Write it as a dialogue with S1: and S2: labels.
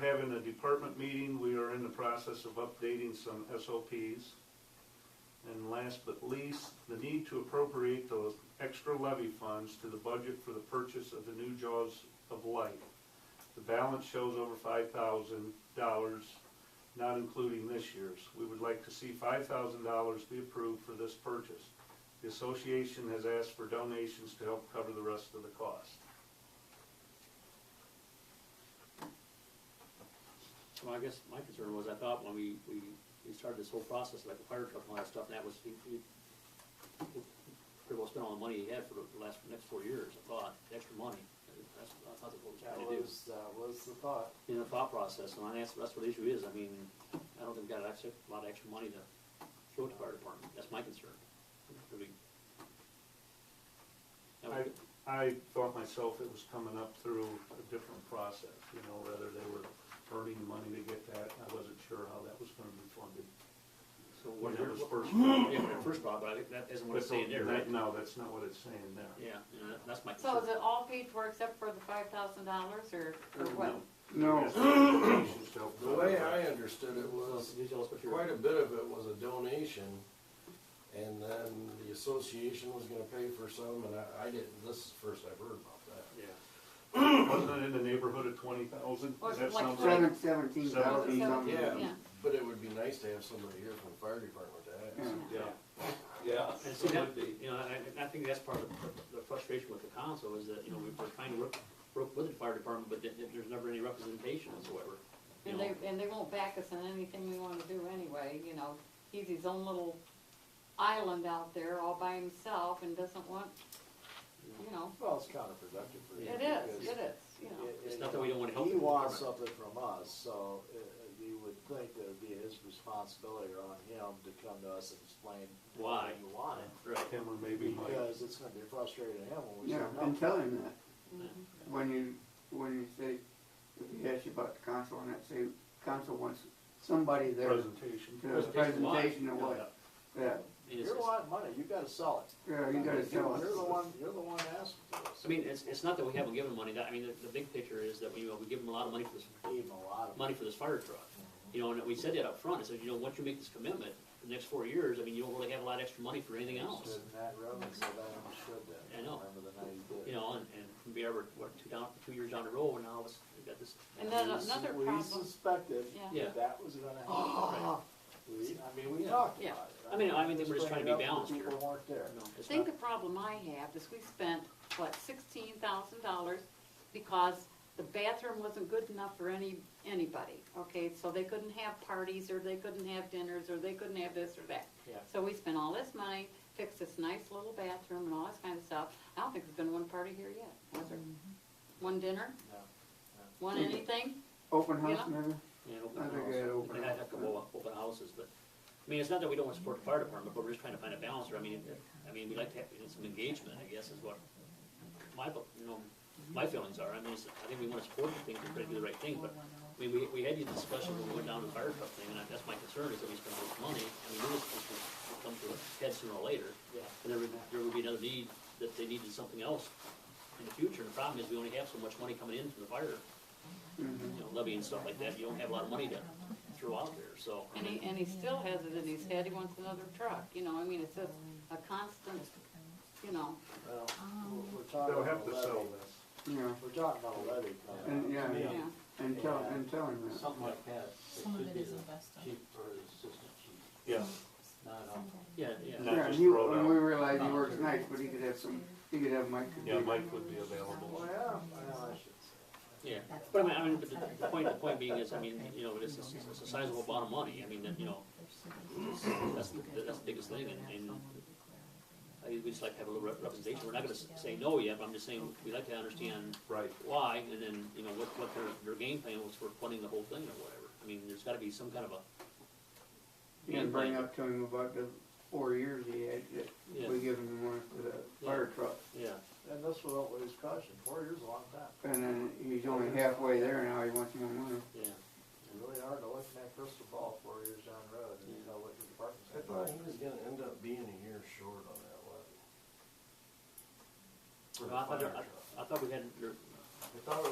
S1: having a department meeting, we are in the process of updating some SOPs. And last but least, the need to appropriate those extra levy funds to the budget for the purchase of the new jaws of life. The balance shows over five thousand dollars, not including this year's. We would like to see five thousand dollars be approved for this purchase. The association has asked for donations to help cover the rest of the cost.
S2: Well, I guess my concern was, I thought when we, we, we started this whole process, like the fire truck and all that stuff, and that was, he, he pretty well spent all the money he had for the last, next four years, I thought, extra money, that's, I thought that's what
S3: That
S2: we were trying to do.
S3: was, that was the thought.
S2: In the thought process, and I asked, that's what the issue is, I mean, I don't think we got extra, a lot of extra money to throw at the fire department, that's my concern. I mean, that
S1: I,
S2: was good.
S1: I thought myself it was coming up through a different process, you know, whether they were earning money to get that, I wasn't sure how that was gonna be funded.
S2: So
S1: When
S2: what,
S1: it was
S2: what,
S1: first. funded.
S2: yeah, when it first brought, but I think that isn't what it's saying there, right?
S1: No, that's not what it's saying there.
S2: Yeah, you know, that- that's my concern.
S4: So is it all paid for except for the five thousand dollars or, or what?
S5: No.
S1: That's donations to help
S5: The way
S1: cover
S5: I
S1: that.
S5: understood it was,
S2: Can you tell us what your-
S5: quite a bit of it was a donation, and then the association was gonna pay for some, and I, I didn't, this is the first I've heard about that.
S2: Yeah.
S1: Wasn't it in the neighborhood of twenty thousand?
S4: Was it
S1: That
S4: like
S1: sounds
S4: twenty-
S1: right.
S6: Seven, seventeen
S4: Was it
S6: thousand something.
S5: Yeah.
S4: seventeen? Yeah.
S5: But it would be nice to have somebody here from the fire department to ask.
S1: Yeah,
S7: Yeah,
S2: And so
S7: it
S2: that,
S7: would be.
S2: you know, I, I- I think that's part of the- the frustration with the council is that, you know, we we're trying to work, work with the fire department, but there- there's never any representation whatsoever. You
S4: And
S2: know,
S4: they, and they won't back us on anything we wanna do anyway, you know, he's his own little island out there all by himself and doesn't want, you know,
S3: Well, it's counterproductive for him.
S4: it is,
S3: because
S4: it is, you know.
S3: it-
S2: It's
S3: it-
S2: not that we don't wanna help
S3: He
S2: him.
S3: wants something from us, so uh, uh, you would think that it'd be his responsibility or on him to come to us and explain.
S2: Why.
S3: You want it,
S2: Right.
S1: him or maybe Mike.
S3: because it's gonna be frustrating to him when we say
S6: Yeah,
S3: no.
S6: and tell him that,
S4: Mhm.
S6: when you, when you say, if he asks you about the council and that, say, council wants somebody there to
S1: Presentation.
S6: do a
S2: Presentation why?
S6: presentation or what. Yeah,
S2: And it's-
S3: You're wanting money, you gotta sell it.
S6: yeah, you gotta tell us.
S3: You're the one, you're the one asking for this.
S2: I mean, it's, it's not that we haven't given them money, that, I mean, the, the big picture is that we, you know, we give them a lot of money for this,
S3: Gave him a lot of.
S2: money for this fire truck. You know, and we said that up front. I said, you know, once you make this commitment, for the next four years, I mean, you don't really have a lot of extra money for anything else.
S3: And Matt Robbins said I understood that.
S2: I know.
S3: Remember the night he did.
S2: You know, and, and from be ever, what, two down, two years down the road, and now it's, we've got this.
S4: And then
S3: We-
S4: another
S3: We
S4: problem, Oh.
S3: suspected
S2: Yeah.
S3: that that was gonna happen. We, I mean, we talked
S4: Yeah.
S3: about it.
S2: I mean, I mean, they were just trying to be
S3: Bringing it up
S2: balanced
S3: when
S2: here.
S3: People weren't there.
S2: you know,
S4: I
S2: it's
S4: think
S2: not-
S4: the problem I have is we spent, what, sixteen thousand dollars because the bathroom wasn't good enough for any, anybody, okay? So they couldn't have parties, or they couldn't have dinners, or they couldn't have this or that.
S2: Yeah.
S4: So we spent all this money, fixed this nice little bathroom and all this kind of stuff. I don't think there's been one party here yet, has there? One dinner?
S3: No, no.
S4: One anything?
S6: Open house,
S4: Yeah.
S6: maybe?
S2: Yeah,
S6: I
S2: open
S6: think
S2: house.
S6: they had open
S2: They had a couple of open houses, but, I mean, it's not that we don't want to support the fire department, but we're just trying to find a balance, there. I mean, I mean, we like to have some engagement, I guess, is what my, you know, my feelings are, I mean, it's- I think we want to support the thing, we're trying to do the right thing, but, I mean, we, we had these discussions when we went down to the fire truck thing, and I- that's my concern, is that we spend all this money, I mean, this is gonna come to a head sooner or later,
S3: Yeah.
S2: and there would, there would be another need, that they needed something else in the future, the problem is we only have so much money coming in from the fire
S6: Mm-hmm.
S2: you know, levy and stuff like that, you don't have a lot of money to throw out there, so. I
S4: And he,
S2: mean,
S4: and he still has it in his head, he wants another truck, you know, I mean, it's just a constant, you know,
S3: Well,
S4: Oh.
S3: we're- we're talking
S1: They'll
S3: about
S1: have
S3: a
S1: to sell
S3: levy.
S1: this.
S6: Yeah,
S3: We're talking about a levy coming
S6: and,
S3: up.
S6: yeah,
S4: yeah.
S6: and tell, and tell him that.
S7: Something like that.
S8: Some of it is invested.
S7: Chief or assistant chief,
S1: Yeah,
S7: not on.
S2: Yeah, yeah,
S1: No.
S6: Yeah,
S1: just
S6: he,
S1: throw it
S6: and
S1: out.
S6: we realize he works nights, but he could have some, he could have Mike. could
S1: yeah,
S6: be-
S1: Mike would be available.
S3: Well, well, Oh, I should say.
S2: yeah, but I mean, I mean, but the, the point, the point being is, I mean, you know, it's, it's it's a sizable amount of money, I mean, that, you know, that's, the- that's the biggest thing, and, and I, we just like to have a little rep- representation, we're not gonna s- say no yet, but I'm just saying, we like to understand
S1: Right.
S2: why, and then, you know, what, what their, their game plan was for funding the whole thing or whatever, I mean, there's gotta be some kind of a,
S6: You can bring up to him about the four years he had,
S2: Yeah.
S6: that we give him the money for the fire truck.
S2: yeah,
S3: And this was what was cautioned, four years is a long time.
S6: And then he's only halfway there now, he wants more money.
S2: yeah.
S3: It's really hard to look in that crystal ball four years down the road and you know what your department's gonna
S5: I
S3: do.
S5: thought he was gonna end up being a year short on that levy. For
S2: Well,
S5: the
S2: I thought,
S5: fire
S2: I-
S5: truck.
S2: I thought we had,
S5: I thought it